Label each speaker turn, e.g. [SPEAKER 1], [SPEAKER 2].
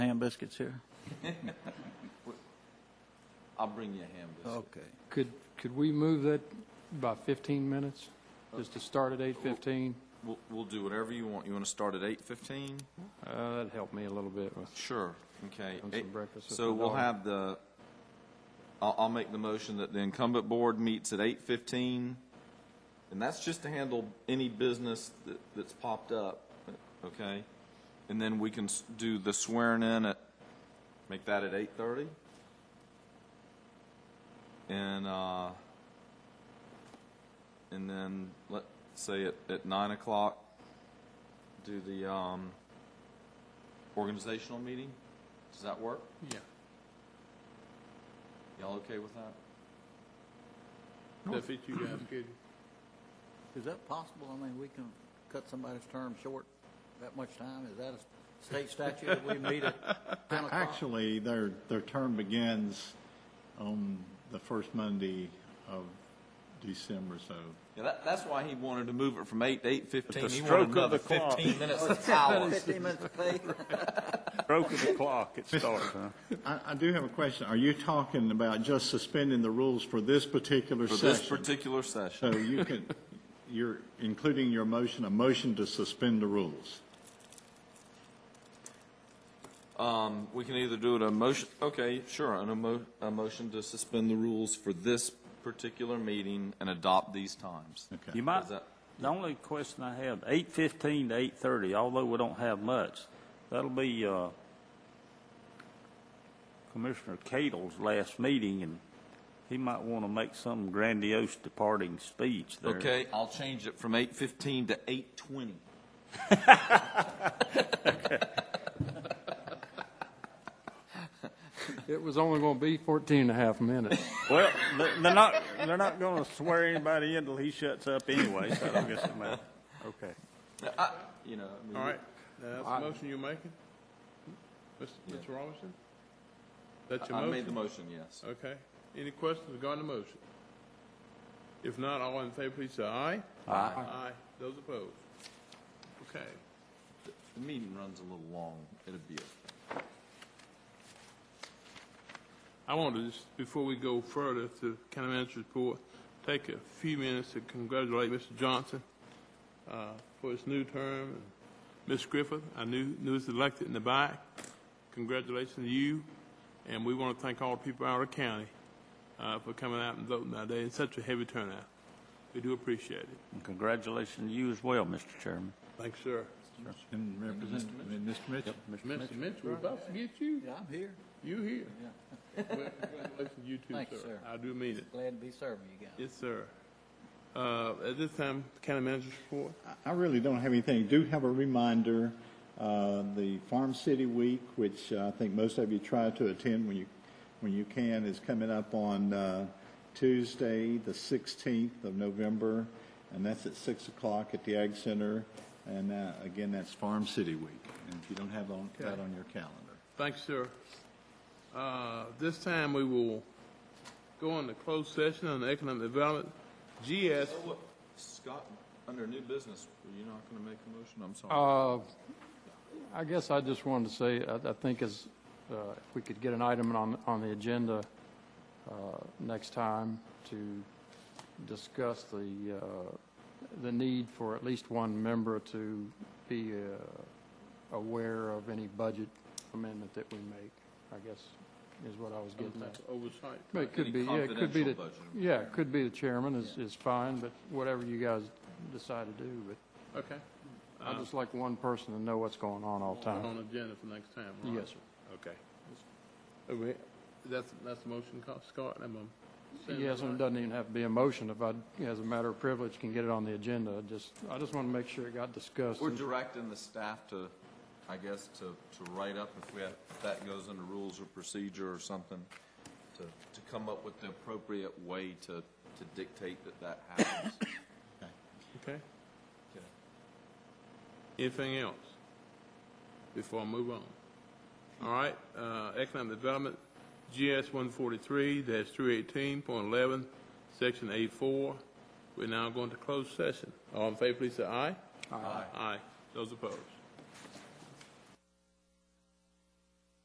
[SPEAKER 1] biscuits here.
[SPEAKER 2] I'll bring you a ham biscuit.
[SPEAKER 1] Okay.
[SPEAKER 3] Could, could we move that by 15 minutes, just to start at 8:15?
[SPEAKER 2] We'll, we'll do whatever you want. You want to start at 8:15?
[SPEAKER 3] Uh, That'd help me a little bit with
[SPEAKER 2] Sure. Okay.
[SPEAKER 3] Have some
[SPEAKER 2] Eight-
[SPEAKER 3] breakfast with
[SPEAKER 2] So
[SPEAKER 3] my
[SPEAKER 2] we'll
[SPEAKER 3] daughter.
[SPEAKER 2] have the, I'll, I'll make the motion that the incumbent board meets at 8:15. And that's just to handle any business that, that's popped up, okay? And then we can s- do the swearing in at, make that at 8:30? And, uh, and then, let's say at, at 9 o'clock, do the, um, organizational meeting? Does that work?
[SPEAKER 3] Yeah.
[SPEAKER 2] Y'all okay with that?
[SPEAKER 4] That fit you guys good?
[SPEAKER 1] Is that possible? I mean, we can cut somebody's term short that much time? Is that a state statute that we meet at 10 o'clock?
[SPEAKER 5] Actually, their, their term begins on the first Monday of December, so.
[SPEAKER 2] Yeah, that, that's why he wanted to move it from eight to eight fifteen.
[SPEAKER 6] the
[SPEAKER 2] He
[SPEAKER 6] stroke
[SPEAKER 2] wanted
[SPEAKER 6] of
[SPEAKER 2] another
[SPEAKER 6] the clock.
[SPEAKER 2] fifteen minutes of power.
[SPEAKER 1] 15 minutes of pay?
[SPEAKER 6] Broke of the clock, it starts, huh?
[SPEAKER 5] I, I do have a question. Are you talking about just suspending the rules for this particular
[SPEAKER 2] For this
[SPEAKER 5] session?
[SPEAKER 2] particular session.
[SPEAKER 5] So you can, you're including your motion, a motion to suspend the rules.
[SPEAKER 2] Um, we can either do it a motion, okay, sure, an emo, a motion to suspend the rules for this particular meeting and adopt these times.
[SPEAKER 5] Okay.
[SPEAKER 6] You might,
[SPEAKER 2] Is that-
[SPEAKER 6] the only question I have, eight fifteen to eight thirty, although we don't have much, that'll be, uh, Commissioner Cadle's last meeting, and he might want to make some grandiose departing speech there.
[SPEAKER 2] Okay, I'll change it from eight fifteen to eight twenty.
[SPEAKER 3] It was only going to be 14 and a half minutes.
[SPEAKER 6] Well, they- they're not, they're not going to swear anybody in till he shuts up anyway, so I don't guess it matters. Okay.
[SPEAKER 2] You know, Uh, I mean,
[SPEAKER 4] All right, now that's the motion you're making? Mr. Mr. Robinson? That's your
[SPEAKER 2] I made the
[SPEAKER 4] motion?
[SPEAKER 2] motion, yes.
[SPEAKER 4] Okay. Any questions regarding the motion? If not, all in favor, please say aye. Aye. Aye. Those opposed? Okay.
[SPEAKER 2] The meeting runs a little long. It'll be, okay.
[SPEAKER 4] I want to just, before we go further to county manager's report, take a few minutes to congratulate Mr. Johnson uh, for his new term. Ms. Griffith, I knew, knew was elected in the back. Congratulations to you, and we want to thank all the people out of the county uh, for coming out and voting that day in such a heavy turnout. We do appreciate it.
[SPEAKER 6] And Congratulations to you as well, Mr. Chairman.
[SPEAKER 4] Thanks, sir.
[SPEAKER 5] And Representative, and Mr. Mitchell?
[SPEAKER 4] Mr. Mitchell, we're about to get you.
[SPEAKER 1] Yeah, I'm here.
[SPEAKER 4] You here. Well, Congratulations to you too,
[SPEAKER 1] Thank you,
[SPEAKER 4] sir.
[SPEAKER 1] sir.
[SPEAKER 4] I do mean it.
[SPEAKER 1] Glad to be serving you guys.
[SPEAKER 4] Yes, sir. Uh, At this time, county manager's report.
[SPEAKER 5] I really don't have anything. Do have a reminder, uh, the Farm City Week, which uh, I think most of you try to attend when you, when you can, is coming up on uh, Tuesday, the 16th of November, and that's at 6 o'clock at the Ag Center. And uh, again, that's Farm City Week, and if you don't have on- that on your calendar.
[SPEAKER 4] Thanks, sir. Uh, This time, we will go on to closed session on economic development. GS,
[SPEAKER 2] Oh, what- Scott, under new business, were you not going to make a motion? I'm sorry.
[SPEAKER 3] Uh, I guess I just wanted to say, I I think as, uh, if we could get an item on, on the agenda uh, next time to discuss the, uh, the need for at least one member to be uh, aware of any budget amendment that we make, I guess, is what I was getting at.
[SPEAKER 4] oversight.
[SPEAKER 3] But it could be, yeah, it could be the, yeah, it could be the chairman is, is fine, but whatever you guys decide to do, but
[SPEAKER 4] Okay.
[SPEAKER 3] I'd just like one person to know what's going on all the time.
[SPEAKER 4] On agenda for next time, right?
[SPEAKER 3] Yes, sir.
[SPEAKER 4] Okay. Are we- That's, that's the motion, Scott, I'm, um, saying that
[SPEAKER 3] Yes, and it
[SPEAKER 4] right?
[SPEAKER 3] doesn't even have to be a motion. If I, as a matter of privilege, can get it on the agenda, I just, I just want to make sure it got discussed.
[SPEAKER 2] We're directing the staff to, I guess, to, to write up if we have, if that goes under rules or procedure or something, to, to come up with the appropriate way to, to dictate that that happens.
[SPEAKER 4] Okay. Anything else before I move on? All right, uh, economic development, GS one forty-three dash three eighteen point eleven, section A four. We're now going to close session. All in favor, please say aye. Aye. Aye. Those opposed?